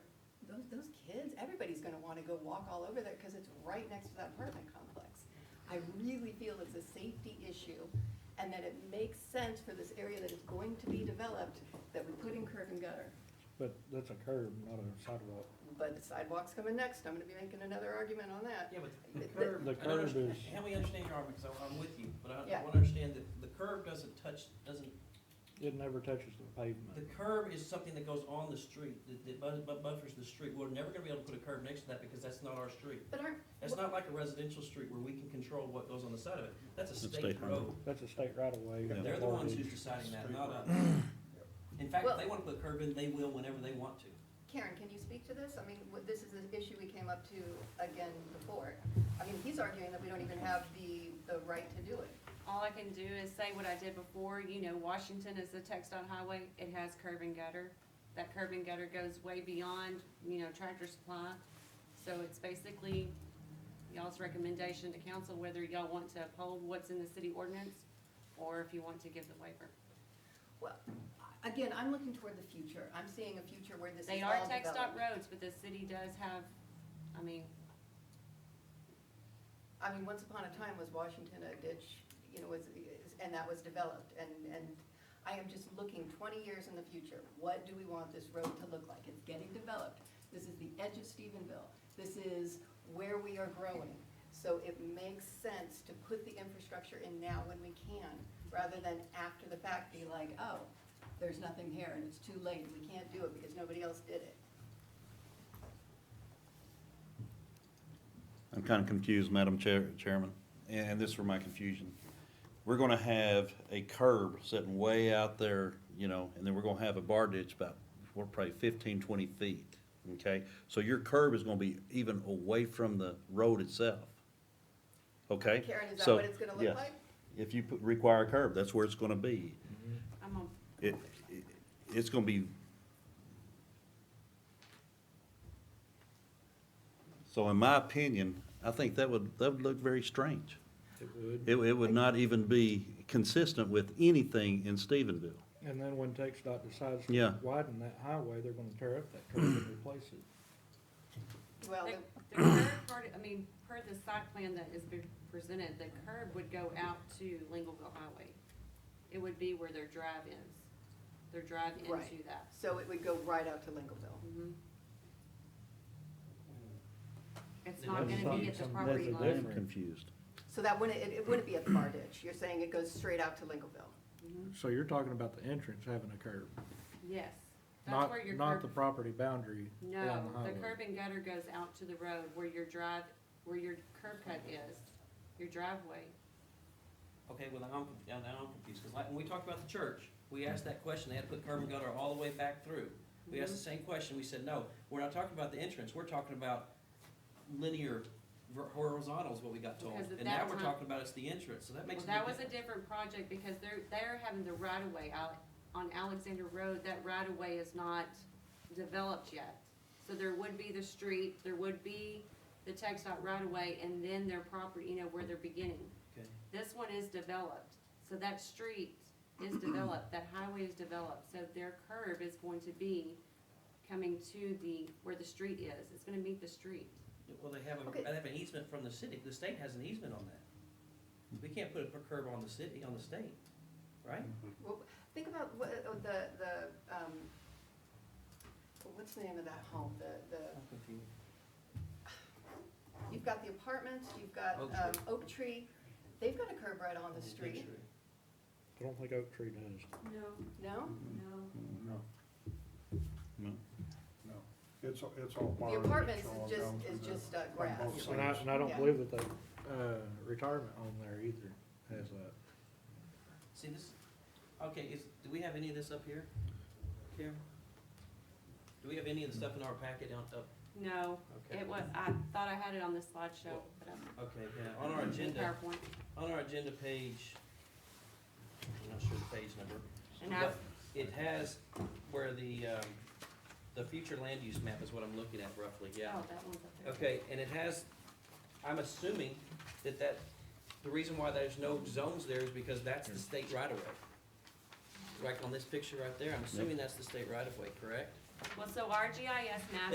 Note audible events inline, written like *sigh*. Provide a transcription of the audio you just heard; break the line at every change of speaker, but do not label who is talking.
those kids, everybody's gonna wanna go walk all over there, cause it's right next to that apartment complex. I really feel it's a safety issue, and that it makes sense for this area that is going to be developed, that we put in curb and gutter.
But that's a curb, not a sidewalk.
But the sidewalk's coming next, I'm gonna be making another argument on that.
Yeah, but the
But-
curb.
The
I don't
curb
understand-
is-
Help me understand your argument, because I'm with you, but I
Yeah.
I want to understand that the curb doesn't touch, doesn't,
It never touches the
the
pavement.
curb is something that goes on the street, that- that bu- bu- buffers the street. We're never going to be able to put a curb next to that because that's not our street.
But aren't,
That's not like a residential street where we can control what goes on the side of it. That's a
It's
state
state
road.
That's a state right of way.
They're the ones who's deciding that, not us. In fact, if
Well-
they want to put a curb in, they will whenever they want to.
Karen, can you speak to this? I mean, what- this is an issue we came up to again before. I mean, he's arguing that we don't even have the, the right to do it.
All I can do is say what I did before, you know, Washington is the textile highway, it has curb and gutter. That curb and gutter goes way beyond, you know, tractor supply. So it's basically y'all's recommendation to council whether y'all want to uphold what's in the city ordinance or if you want to give the waiver.
Well, again, I'm looking toward the future. I'm seeing a future where this is all
They are
developed.
textile roads, but the city does have, I mean,
I mean, once upon a time was Washington a ditch, you know, was, is- and that was developed, and, and I am just looking twenty years in the future, what do we want this road to look like? It's getting developed, this is the edge of Stephenville, this is where we are growing. So it makes sense to put the infrastructure in now when we can, rather than after the fact be like, oh, there's nothing here and it's too late, we can't do it because nobody else did it.
I'm kind of confused, Madam Chair, Chairman, and this is where my confusion. We're gonna have a curb sitting way out there, you know, and then we're gonna have a bar ditch about, we're probably 15, 20 feet, okay? So your curb is gonna be even away from the road itself, okay?
Karen, is that
So,
what it's gonna look
yes.
like?
If you put- require a curb, that's where it's gonna be.
I'm on,
It, it, it's gonna be. So in my opinion, I think that would, that would look very strange.
It would.
It, it would not even be consistent with anything in Stephenville.
And then when TXDOT decides to
Yeah.
widen that highway, they're gonna tear up that curb and replace it.
Well,
The
the-
the curb part, I mean, per the site plan that is being presented, the curb would go out to Lingleville Highway. It would be where their drive is, their drive
Right. Mm-hmm.
into that.
so it would go right out to Lincolnville.
Mhm. It's
Then
not
that's
gonna be
something-
at the
something
property
that's a
line.
different-
I'm confused.
So that wouldn't, it, it wouldn't be a far ditch, you're saying it goes straight out to Lincolnville?
*clears throat*
Mhm.
So you're talking about the entrance having a curb,
Yes. That's
not,
where your
not the
curb,
property boundary along the
no, the
highway.
curb and gutter goes out to the road where your drive, where your curb cut is, your driveway.
Okay, well, now I'm, yeah, now I'm confused, because like, when we talked about the church, we asked that question, they had to put curb and gutter all the way back through. We asked the
Mm-hmm.
same question, we said, no, we're not talking about the entrance, we're talking about linear ver- horizontals, what we got told.
Because at
And now
that
we're
time-
talking about it's the entrance, so that makes
Well,
it
that was a different project because they're, they're having the right of way out on Alexander Road. That right of way is not developed yet. So there would be the street, there would be the text dot right of way and then their property, you know, where they're beginning.
Okay.
This one is developed, so that street is developed, that highway is developed, so their curb is going to be coming to the, where the street is. It's gonna meet the street.
Well, they have,
Okay.
a they have an easement from the city, the state has an easement on that. We can't put a curb on the city, on the state, right?
Well, Think about what, uh, the, the, um, what's the name of that home, the, the,
I'm confused.
you've got the apartments, you've got,
Oak
um, Oak Tree, they've got a curb right on the street,
I don't think Oak Tree does.
No,
no?
no.
No,
No.
no, it's, it's all
The
barn.
apartments
It's all
is just,
down
is
to the-
just uh,
on
grass.
both
And I, and I
Yeah.
don't believe that the, uh, retirement home there either has that.
See this, okay, is, do we have any of this up here, Karen? Do we have any of the stuff in our packet down, up,
No,
okay,
it was, I thought I had it on the slideshow, but I'm.
okay, yeah, on our agenda,
PowerPoint,
on our agenda page, I'm not sure the page number.
and I've,
but It has where the, um, the future land use map is what I'm looking at roughly, yeah.
oh, that one's up there.
Okay, and it has, I'm assuming that that, the reason why there's no zones there is because that's the state right of way. Like on this picture right there, I'm assuming that's the state right of way, correct?
Well, so our GIS map